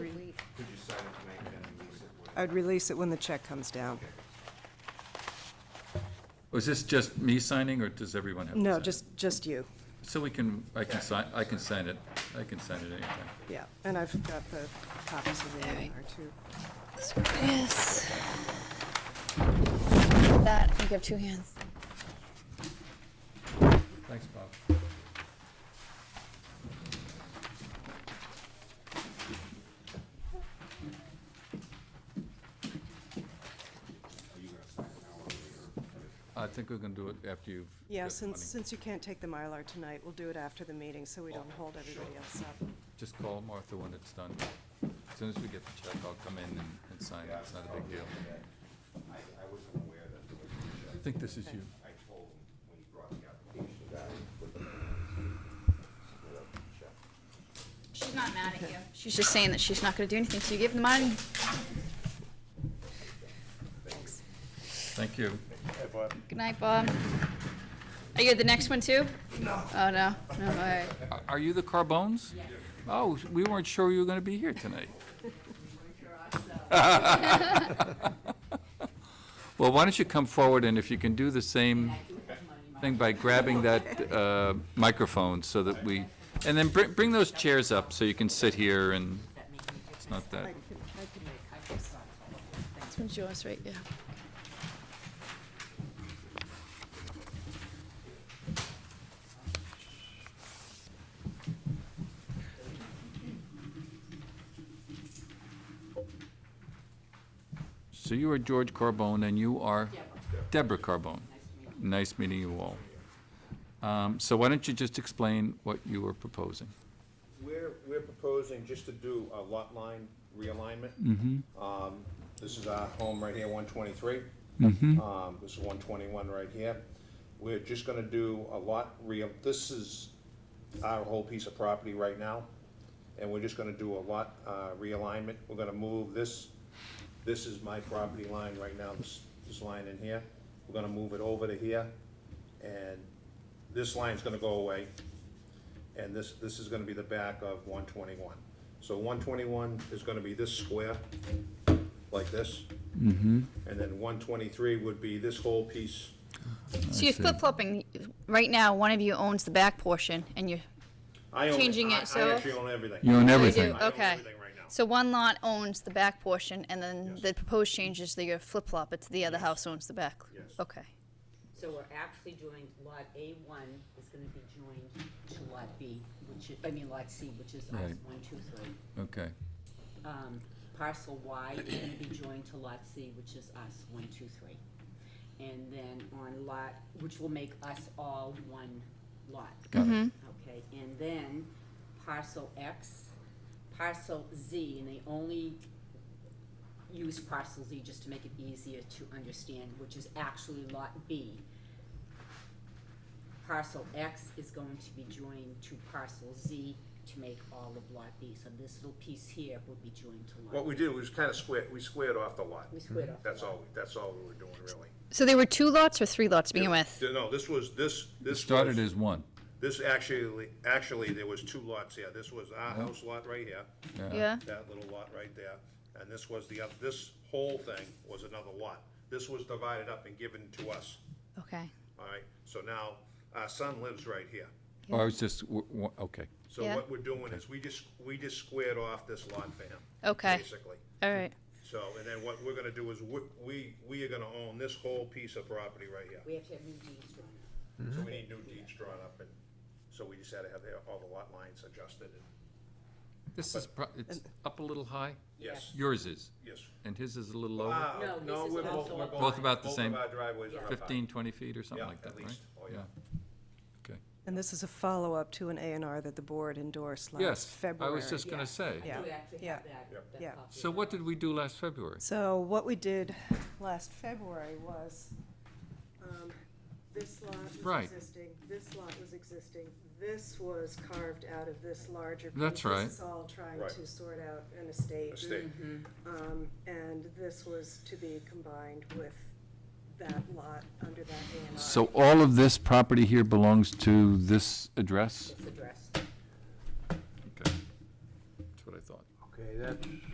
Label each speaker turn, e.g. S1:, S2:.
S1: I'd release it when the check comes down.
S2: Was this just me signing, or does everyone have to sign?
S1: No,
S2: it?
S1: just, just you,
S2: So we can, I can sign, I can sign it, I can sign it anytime.
S1: yeah. And I've got the copies of the A and R too.
S3: Yes. That, you have two hands.
S2: Thanks, Bob. I think we're gonna do it after you've.
S1: Yeah,
S2: got the
S1: since,
S2: money.
S1: since you can't take the Mylar tonight, we'll do it after the meeting so we don't hold everybody else up.
S2: Just call Martha when it's done. As soon as we get the check, I'll come in and, and sign it, it's not a big deal.
S4: I, I wasn't aware that there was,
S2: I think this is you.
S4: I told him when he brought the application that I would put the, split up the check.
S3: She's not mad at you. She's just saying that she's not gonna do anything, so you give the money.
S2: Thank you.
S3: Good night, Bob. Are you the next one too? No. Oh, no, no, all right.
S2: Are- Are you the Carbones? Oh, we weren't sure you were gonna be here tonight. Well, why don't you come forward, and if you can do the same thing by grabbing that uh, microphone so that we, and then bring, bring those chairs up so you can sit here and, it's not that,
S3: This one's yours, right, yeah.
S2: so you are George Carbone, and you are Deborah Carbone. Nice meeting you all. Um, So why don't you just explain what you are proposing?
S4: We're, we're proposing just to do a lot line realignment. Um, This is our home right here, one twenty-three. Um, this is one twenty-one right here. We're just gonna do a lot real, this is our whole piece of property right now. And we're just gonna do a lot, uh, realignment. We're gonna move this, this is my property line right now, this, this line in here. We're gonna move it over to here. And this line's gonna go away and this, this is gonna be the back of one twenty-one. So one twenty-one is gonna be this square, like this.
S2: Mm-hmm.
S4: And then one twenty-three would be this whole piece,
S3: So you're flip-flopping, right now, one of you owns the back portion, and you're,
S4: I own,
S3: Changing it,
S4: I, I
S3: so-
S4: actually own everything.
S2: You own
S3: Oh, you
S2: everything.
S3: do,
S4: I own
S3: okay.
S4: everything right now.
S3: So one lot owns the back portion, and then
S4: Yes.
S3: the proposed change is that you flip-flop, it's the other house owns the back.
S4: Yes.
S3: Okay.
S5: So we're actually doing lot A one is gonna be joined to lot B, which is, I mean lot C, which is us,
S2: Right.
S5: one, two, three.
S2: Okay,
S5: Um, parcel Y is gonna be joined to lot C, which is us, one, two, three. And then on lot, which will make us all one lot.
S2: got it.
S5: Okay, and then parcel X, parcel Z, and they only use parcel Z just to make it easier to understand, which is actually lot B. Parcel X is going to be joined to parcel Z to make all of lot B, so this little piece here would be joined to lot.
S4: What we did was kinda squared, we squared off the lot.
S5: We squared off the
S4: That's all, that's all we were doing, really.
S3: So there were two lots or three lots to begin with?
S4: No, this was, this, this
S2: Started
S4: was-
S2: as one.
S4: This actually, actually, there was two lots here. This was our house lot right here,
S3: Yeah?
S4: that little lot right there, and this was the other, this whole thing was another lot. This was divided up and given to us.
S3: Okay.
S4: All right, so now, our son lives right here.
S2: Oh, I was just, w- w- okay.
S4: So
S3: Yeah.
S4: what we're doing is, we just, we just squared off this lot for him.
S3: Okay.
S4: Basically.
S3: All right.
S4: So, and then what we're gonna do is, we- we, we are gonna own this whole piece of property right here.
S5: We have to have new deeds drawn up.
S2: Mm-hmm.
S4: So we need new deeds drawn up, and so we just had to have the- all the lot lines adjusted, and,
S2: This is, pro- it's up a little high.
S4: yes,
S2: Yours is,
S4: yes.
S2: and his is a little lower,
S4: Ah,
S5: No, this is
S4: we're
S5: also
S4: we're
S5: a
S2: Both about the same.
S4: Both of our driveways are up high.
S2: 15, 20 feet or something
S4: Yeah,
S2: like that,
S4: at
S2: right?
S4: least. Oh, yeah.
S2: Okay.
S1: And this is a follow-up to an A and R that the board endorsed last
S2: Yes, I
S1: February.
S2: was just going to say.
S1: Yeah.
S5: We actually have that, that
S1: Yeah.
S5: copy
S2: So
S5: of
S2: what did we do last February?
S1: So what we did last February was, um, this lot was
S2: Right.
S1: existing, this lot was existing, this was carved out of this larger piece.
S2: That's right.
S1: This is all trying
S4: Right.
S1: to sort out an estate.
S4: Estate.
S1: Um, and this was to be combined with that lot under that A and R.
S2: So all of this property here belongs to this address?
S5: This address.
S2: Okay. That's what I thought.
S6: Okay, that,